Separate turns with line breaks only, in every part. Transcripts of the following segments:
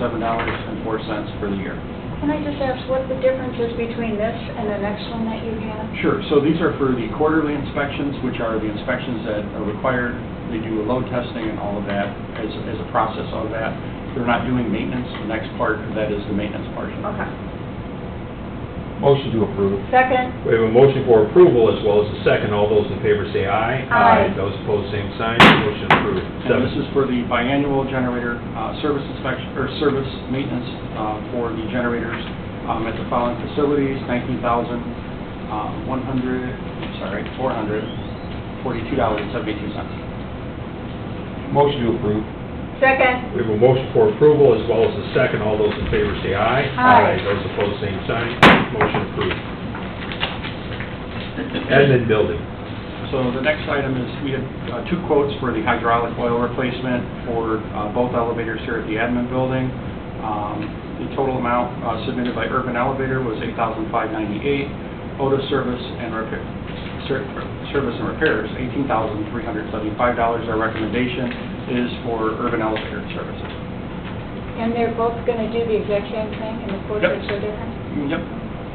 seven dollars and four cents for the year.
Can I just ask what the difference is between this and the next one that you have?
Sure, so these are for the quarterly inspections, which are the inspections that are required. They do a load testing and all of that as, as a process of that. They're not doing maintenance, the next part of that is the maintenance portion.
Okay.
Motion to approve.
Second?
We have a motion for approval as well as a second. All those in favor say aye.
Aye.
Those opposed, same sign. Motion approved.
And
Seven.
this is for the biannual generator uh, service inspection, or service maintenance uh, for the generators um, at the following facilities, nineteen thousand, uh, one hundred, sorry, four hundred, forty-two dollars and seventy-two cents.
Motion to approve.
Second?
We have a motion for approval as well as a second. All those in favor say aye.
Aye.
Those opposed, same sign. Motion approved. Admin building.
So the next item is, we had uh, two quotes for the hydraulic oil replacement for uh, both elevators here at the admin building. Um, The total amount uh, submitted by Urban Elevator was $8,598. Otis Service and Repair, Ser- Service and Repairs, $18,375. Our recommendation is for Urban Elevator Services.
And they're both going to do the exact same thing and the quotes
Yep.
are so different?
Yep.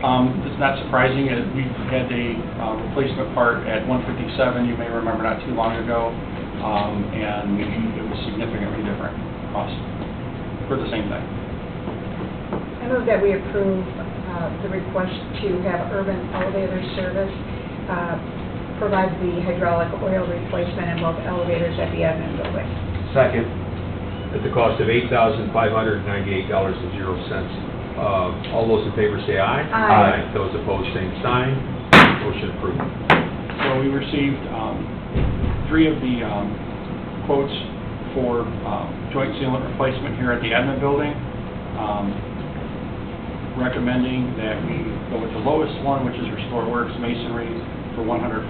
Um, It's not surprising, uh, we had a uh, replacement part at 157, you may remember not too long ago, um, and it was significantly different cost for the same thing.
I move that we approve uh, the request to have Urban Elevator Service uh, provide the hydraulic oil replacement in both elevators at the admin building.
Second.
at the cost of $8,598.00. Uh, All those in favor say aye.
Aye.
Those opposed, same sign. Motion approved.
So we received um, three of the um, quotes for um, joint sealant replacement here at the admin building, Um, recommending that we go with the lowest one, which is Restore Works Masonry, for $148,000.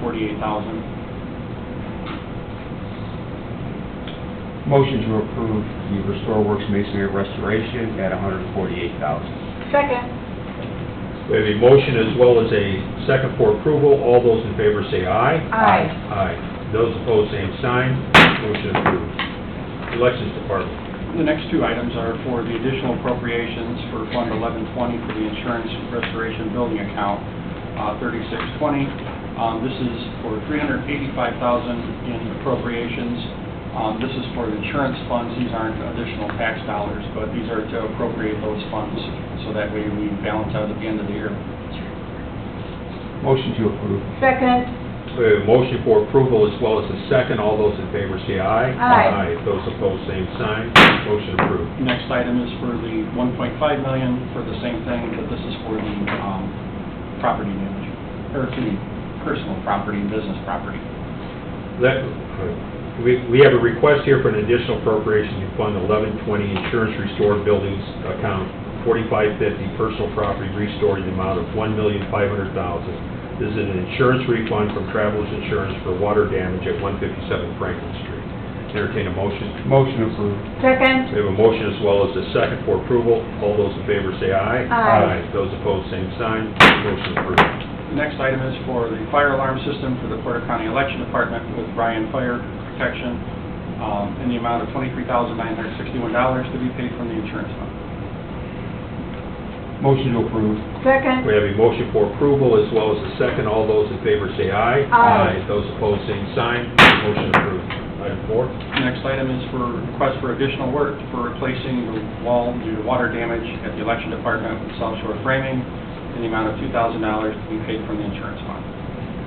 Motion to approve the Restore Works Masonry Restoration at $148,000.
Second?
We have a motion as well as a second for approval. All those in favor say aye.
Aye.
Aye. Those opposed, same sign. Motion approved. Elections Department.
The next two items are for the additional appropriations for Fund 1120 for the Insurance Restoration Building Account, uh, 3620. Um, This is for 385000 in appropriations. Um, This is for the insurance funds. These aren't additional tax dollars, but these are to appropriate those funds, so that way we balance out at the end of the year.
Motion to approve.
Second?
We have a motion for approval as well as a second. All those in favor say aye.
Aye.
Those opposed, same sign. Motion approved.
Next item is for the 1.5 million for the same thing, but this is for the um, property damage, or for the personal property, and business property.
That, we, we have a request here for an additional appropriation to fund eleven twenty insurance restored buildings account forty-five fifty personal property restored in the amount of one million five hundred thousand. This is an insurance refund from Travelers Insurance for water damage at one fifty-seven Franklin Street. Entertain a motion.
Motion approved.
Second?
We have a motion as well as a second for approval. All those in favor say aye.
Aye.
Those opposed, same sign. Motion approved.
The next item is for the fire alarm system for the Porter County Election Department with Ryan Fire Protection um, in the amount of $23,961 to be paid from the insurance fund.
Motion to approve.
Second?
We have a motion for approval as well as a second. All those in favor say aye.
Aye.
Those opposed, same sign. Motion approved. Item four.
The next item is for request for additional work for replacing the wall due to water damage at the Election Department with South Shore Framing in the amount of $2,000 to be paid from the insurance fund.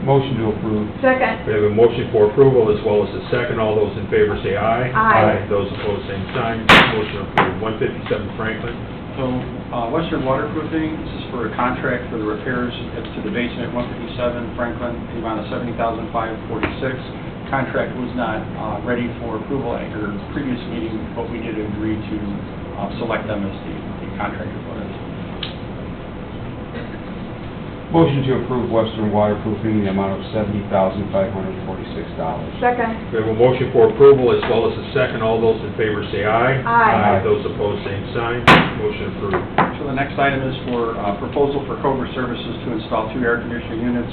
Motion to approve.
Second?
We have a motion for approval as well as a second. All those in favor say aye.
Aye.
Those opposed, same sign. Motion approved. 157 Franklin.
So uh, Western Waterproofing, this is for a contract for the repairs at- to the basement at 157 Franklin, in the amount of $70,546. Contract was not uh, ready for approval at your previous meeting, but we did agree to uh, select them as the the contractor for it.
Motion to approve Western Waterproofing in the amount of $70,546.
Second?
We have a motion for approval as well as a second. All those in favor say aye.
Aye.
Those opposed, same sign. Motion approved.
So the next item is for uh, proposal for Cobra Services to install two air conditioning units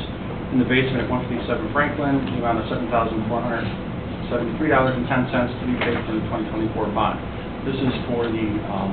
in the basement at 157 Franklin, in the amount of $7,473.10 to be paid from the 2024 bond. This is for the um,